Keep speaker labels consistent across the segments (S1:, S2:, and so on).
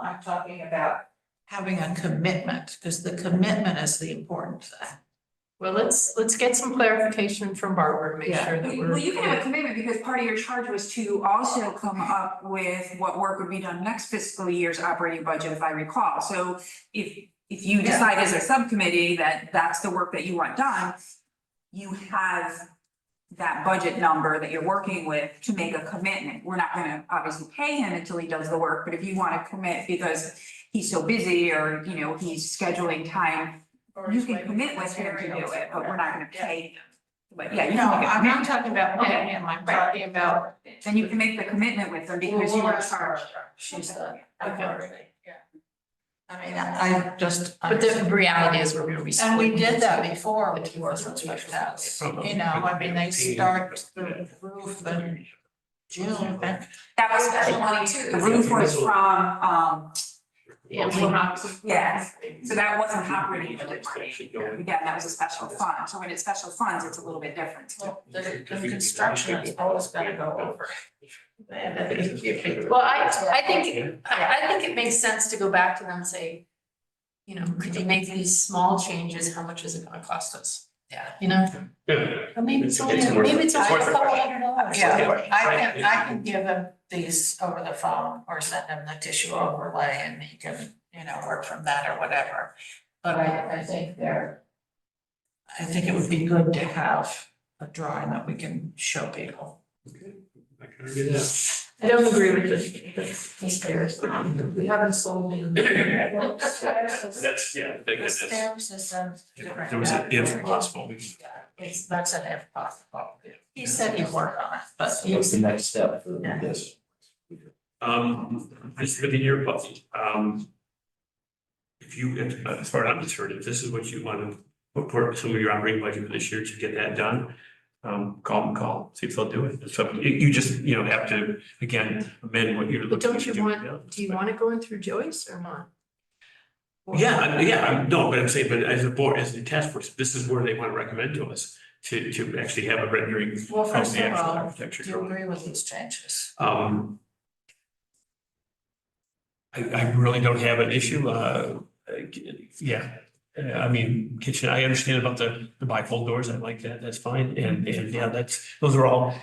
S1: I'm talking about having a commitment, because the commitment is the important thing.
S2: Well, let's, let's get some clarification from Barbara to make sure that we're.
S3: Well, you can have a commitment because part of your charge was to also come up with what work would be done next fiscal year's operating budget, if I recall. So if, if you
S1: Yeah.
S3: decide as a subcommittee that that's the work that you want done, you have that budget number that you're working with to make a commitment. We're not gonna obviously pay him until he does the work, but if you wanna commit because he's so busy or, you know, he's scheduling time, you can commit with him to do it, but we're not gonna pay. him. But yeah, you
S1: No,
S3: can make a
S1: I'm
S3: commitment.
S1: not talking about paying him, I'm talking about.
S3: Then you can make the commitment with them because you are charged.
S2: She's the,
S1: Okay. I mean, I I just.
S2: but the reality is we're gonna be.
S1: And we did that
S2: splitting.
S1: before with the orphanage house,
S4: Uh-huh.
S1: you know, I mean, they start the roof in June, and
S3: That was special money too. The roof was from, um,
S2: Yeah, we-
S3: yeah, so that wasn't operating budget money. Again, that was a special fund. So when it's special funds, it's a little bit different.
S1: well, the the construction is always gonna go over. And if you-
S2: Well, I, I think, I, I think it makes sense to go back to them and say, you know, could you make these small changes? How much is it gonna cost us?
S1: Yeah.
S2: You know,
S4: Yeah.
S2: Or maybe it's
S4: It's-
S2: only,
S4: it's worth
S2: maybe it's
S4: it.
S2: only
S4: It's
S2: a
S4: worth the
S2: couple
S4: question.
S2: hundred dollars.
S1: Yeah. I can, I can give him these over the phone or send him the tissue overlay and he can, you know, work from that or whatever. But I, I think there, I think it would be good to have a drawing that we can show people.
S4: I can do that.
S2: I don't agree with this, this stairs. We haven't sold it.
S4: That's, yeah, big
S1: The
S4: as this.
S1: stair system.
S4: There was an if possible.
S1: It's, that's an if possible. He said he'd work on it, but he
S5: What's the next step for
S1: Yeah.
S5: this?
S4: Um, this with the year budget, um. If you, if- uh, as far as I'm concerned, if this is what you want to put for some of your operating budget for this year to get that done. Um, call them, call, see if they'll do it. So you, you just, you know, have to, again, amend what you're
S2: But
S4: looking
S2: don't
S4: to
S2: you
S4: do.
S2: want, do you want it going through Joyce or not?
S4: Yeah, I- yeah, I'm- no, but I'm saying, but as a board, as a task force, this is where they want to recommend to us to, to actually have a rendering.
S1: Well,
S4: of
S1: first
S4: the
S1: of
S4: actual
S1: all,
S4: architecture
S1: do you
S4: drawing.
S1: agree with these changes?
S4: Um. I, I really don't have an issue, uh, uh, yeah, Uh, I mean, kitchen, I understand about the, the bifold doors, I like that, that's fine, and, and, yeah, that's, those are all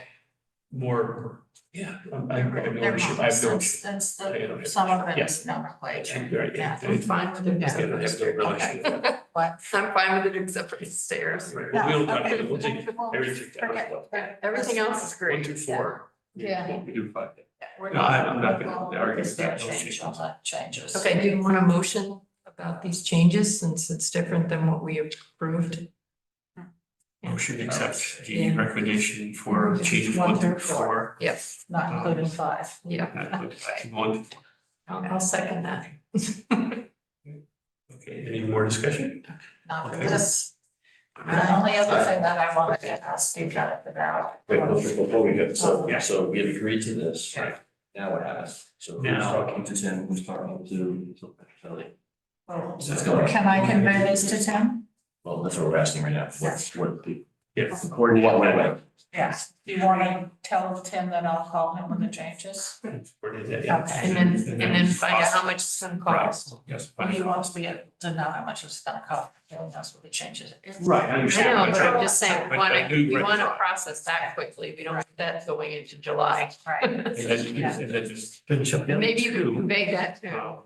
S4: more, yeah, I I have no
S1: They're
S4: issue, I
S1: not,
S4: have no
S1: since-
S4: issue.
S1: since
S4: I
S1: the-
S4: don't have-
S1: some of it
S4: yeah.
S1: is nomenclature.
S4: Right, yeah.
S2: I'm fine with it.
S4: Yeah, I have no real issue with that.
S1: What?
S2: I'm fine with it except for the stairs.
S4: Right,
S1: No,
S4: well, We'll, talk-
S1: okay.
S4: we'll take
S1: Well,
S4: everything out
S1: forget-
S4: of
S1: forget-
S2: Everything else is
S4: one
S2: great.
S4: to four.
S2: Yeah.
S4: What we do five.
S1: We're
S4: No, I- I'm not gonna
S1: Well,
S4: argue
S1: it's
S4: with that,
S1: their
S4: no
S1: change,
S4: change.
S1: all that changes.
S2: Okay, do you want a motion about these changes since it's different than what we approved?
S4: Motion to accept the
S2: Yeah.
S4: recommendation for changes one through four.
S2: Yep,
S1: Not
S4: Um,
S1: including five.
S2: yeah,
S4: Uh, One,
S2: I'll, I'll second that.
S4: okay, any more discussion?
S1: Not for
S4: Okay.
S1: this. The only other thing that I wanted to ask you guys about.
S5: Wait, no, just before we go, so,
S4: Yeah.
S5: so we have agreed to this.
S4: Right.
S5: Now what happens? So who's
S4: Now-
S5: talking to Tim, who's talking to Kelly? That's going-
S1: Can I convey this to Tim?
S5: Well, that's what we're asking right now, what's, what the.
S4: Yes.
S5: According to what way?
S1: Yes. Do you want to tell Tim that I'll call him with the changes?
S4: Where did that- yeah.
S1: Okay.
S2: And then, and then find out how much it's gonna cost.
S4: Right, Yes.
S1: Well, he
S4: fine.
S1: wants to be able to know how much it's gonna cost, he knows what the changes. is.
S4: Right, I
S2: I
S4: understand.
S2: know,
S4: I'm
S2: but
S4: trying-
S2: I'm just saying, we
S4: but
S2: wanna,
S4: I do
S2: we wanna
S4: recognize-
S2: process that quickly. We don't want that going into July.
S1: Right.
S4: And then,
S1: Yeah.
S4: and then just finish up. the other
S2: Maybe you
S4: two.
S2: can convey that too.
S4: Wow.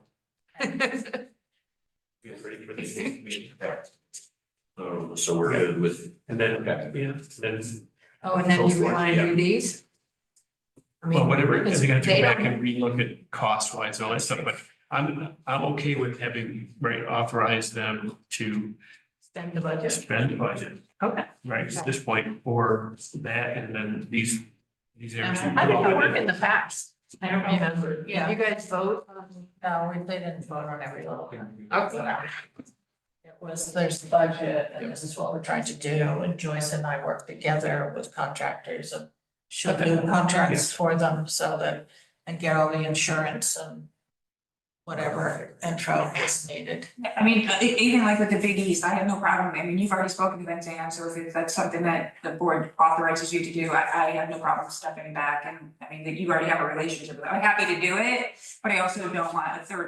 S4: Get ready for the next meeting.
S5: So, so we're good with,
S4: And then,
S5: Okay.
S4: yeah, and then,
S2: Oh, and then you wanna do these? I mean,
S4: well, whatever, because they gotta
S2: they
S4: go back
S2: don't-
S4: and relook at cost wise and all that stuff, but I'm, I'm okay with having, right, authorize them to
S2: Spend the budget.
S4: spend the budget.
S2: Okay.
S4: Right, at this point, or that, and then these, these areas.
S1: Um,
S2: Uh-huh. I think it worked in the past. I don't remember.
S1: Yeah.
S2: You guys vote on, uh,
S1: No, we, they didn't vote on every little thing.
S2: okay.
S1: It was, there's the budget, and this is what we're trying to do, and Joyce and I work together with contractors and should do contracts for them so that, and get all the insurance and whatever intro is needed.
S3: I mean, e- even like with the Big East, I have no problem. I mean, you've already spoken to them, Dan, so if that's something that the board authorizes you to do, I, I have no problem stepping back and, I mean, that you already have a relationship with them. I'm happy to do it, but I also don't want a third